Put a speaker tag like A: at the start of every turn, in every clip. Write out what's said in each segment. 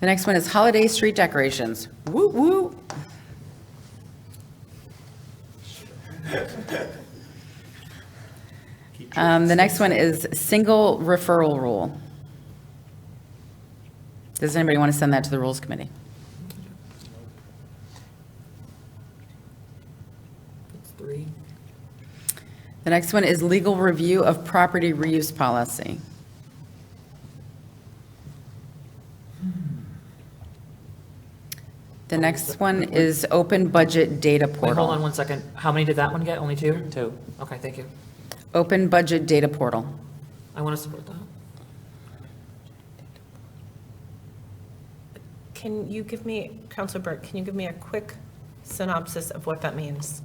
A: The next one is holiday street decorations. Woo woo. Um, The next one is single referral rule. Does anybody want to send that to the Rules Committee?
B: Three.
A: The next one is legal review of property reuse policy. The next one is open budget data
B: Wait, hold on
A: portal.
B: one second. How many did that one get? Only two? Two. Okay, thank you.
A: Open budget data portal.
B: I want to support that.
C: Can you give me, Counselor Burke, can you give me a quick synopsis of what that means?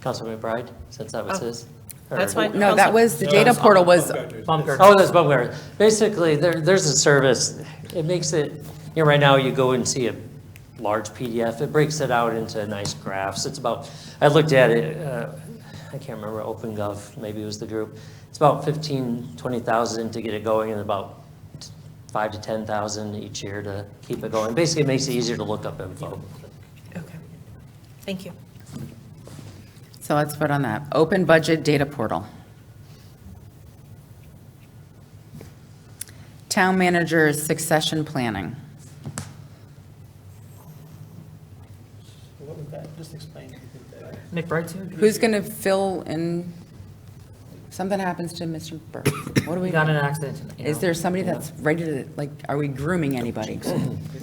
D: Councilor McBride, since that was
C: Oh,
D: his. or-
C: That's fine.
A: No, that
C: Counselor-
A: was, the data portal was,
B: Bumker.
D: Oh, that's Bumgarner. Basically, there, there's a service, it makes it, you know, right now you go and see a large PDF, it breaks it out into nice graphs. It's about, I looked at it, uh, I can't remember, OpenGov, maybe it was the group. It's about 15, 20,000 to get it going and about t- five to 10,000 each year to keep it going. Basically, it makes it easier to look up info.
C: Okay, thank you.
A: so let's vote on that. Open budget data portal. Town manager succession planning.
E: What was that? Just explain. what you did there.
B: McBride too?
A: Who's going to fill in, something happens to Mr. Burke? What do
B: We
A: we,
B: got in an accident. you
A: is
B: know.
A: there somebody that's ready to, like, are we grooming anybody?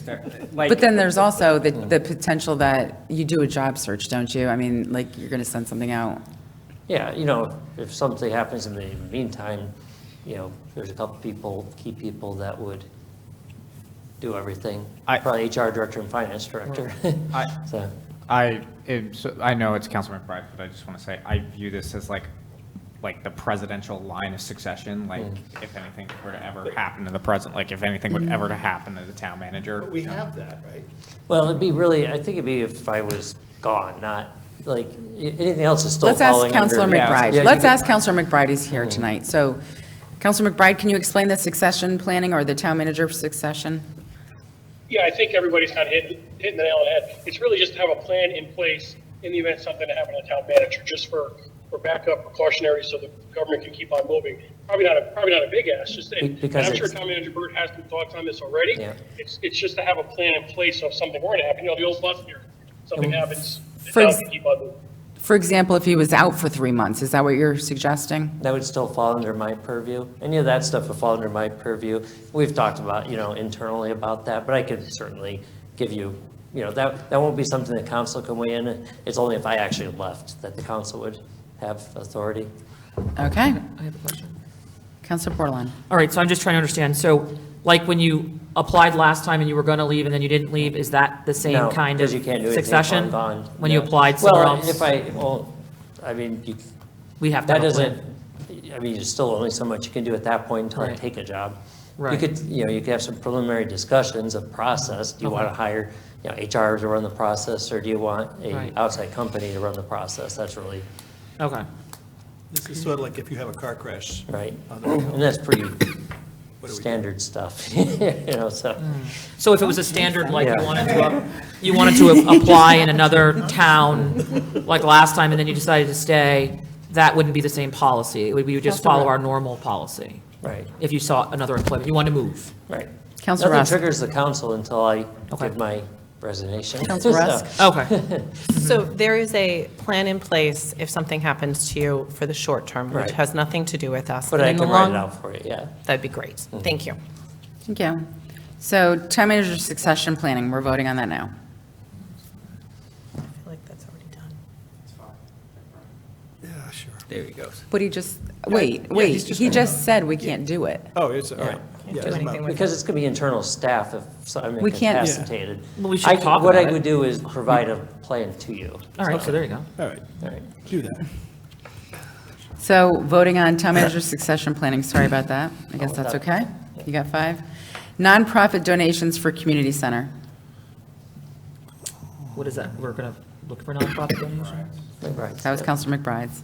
A: But
F: Like,
A: then there's also the, the potential that you do a job search, don't you? I mean, like, you're going to send something out.
D: Yeah, you know, if something happens in the meantime, you know, there's a couple people, key people that would do everything.
F: I-
D: Probably HR director and finance director.
F: I-
D: So,
F: I, am so- I know it's Councilman McBride, but I just want to say, I view this as like, like the presidential line of succession, like if anything were to ever happen to the president, like if anything
A: Mm.
F: would ever to happen to the town manager.
E: But we have that, right?
D: well, it'd be really, I think it'd be if I was gone, not, like, i- anything else is still
A: Let's
D: falling
A: ask
D: under.
A: Counselor
F: Yeah.
D: Yeah,
A: McBride.
D: you
A: Let's
D: could-
A: ask Counselor McBride, he's here tonight. So, Counselor McBride, can you explain the succession planning or the town manager succession?
G: Yeah, I think everybody's kind of hitting, hitting the nail on the head. It's really just to have a plan in place in the event something to happen to the town manager, just for, for backup precautionary so the government can keep on moving. Probably not a, probably not a big ask, just, and and
D: because
G: I'm sure
D: it's-
G: town manager Burt has some thoughts on this already.
D: Yeah.
G: It's, it's just to have a plan in place so if something were to happen, you know, the old bus here, something happens, the
A: For
G: town
A: ex-
G: can keep on moving.
A: For example, if he was out for three months, is that what you're suggesting?
D: That would still fall under my purview. Any of that stuff would fall under my purview. We've talked about, you know, internally about that, but I could certainly give you, you know, that, that won't be something the council can weigh in. It's only if I actually left that the council would have authority.
A: Okay,
B: I have a question.
A: Counselor Portland.
B: All right, so I'm just trying to understand. So like when you applied last time and you were going to leave and then you didn't leave, is that the same
D: No,
B: kind
D: 'cause
B: of
D: you can't do anything if I'm
B: succession?
D: gone.
B: When you
D: No.
B: applied somewhere else?
D: Well, if I, well, I mean, you-
B: We have to
D: that
B: have a plan.
D: doesn't, I mean, there's still only so much you can do at that point until I
B: Right.
D: take a job. You
B: Right.
D: could, you know, you could have some preliminary discussions of process. Do you want to hire, you know, HR to run the process, or do you want a
B: Right.
D: outside company to run the process? That's really,
B: Okay.
E: This is sort of like if you have a car crash.
D: right?
E: Oh, there we go.
D: And that's pretty
E: What do we do?
D: standard stuff, you know, so.
B: Mm. So if it was a standard, like you
D: Yeah.
B: wanted to, up- you wanted to a- apply in another town, like last time, and then you decided to stay, that wouldn't be the same policy. It would- We would just follow our normal policy.
D: Right.
B: If you saw another employment, you wanted to move.
D: Right.
A: Counselor Rusk.
D: Nothing triggers the council until I
B: Okay.
D: give my resignation.
A: Counselor
D: So-
A: Rusk?
B: Okay,
D: Mm-hmm.
C: So there is a plan in place if something happens to you for the short term, which
D: Right.
C: has nothing to do with us.
D: But
C: And
D: I
C: in the
D: can write it
C: long-
D: out Mm-hmm. for you, yeah.
C: That'd be great. Thank you.
A: Thank you. So, town manager succession planning, we're voting on that now.
C: I feel like that's already done.
E: Yeah, sure.
F: There he goes.
A: But he just, wait,
E: yeah,
A: wait,
E: he's just
A: he
E: voting
A: just said we can't do it.
E: Oh, it's, all right.
C: Can't
E: Yeah,
C: do
E: it's
C: anything
E: about-
C: with
D: Because it's going to be internal staff if so- I'm
A: We can't- Yeah.
D: incapacitated.
B: Well, we should
D: I-
B: talk
D: What
B: about
D: I
B: it.
D: would do is provide a plan to you.
B: all right, so there you go.
E: All right,
D: All right.
E: do that.
A: So voting on town manager succession planning, sorry about that. I guess
D: Oh,
A: that's
D: that-
A: okay. You got five. Nonprofit donations for community center.
B: What is that? We're going to look for nonprofit donations?
D: Right.
A: That was Counselor McBride's.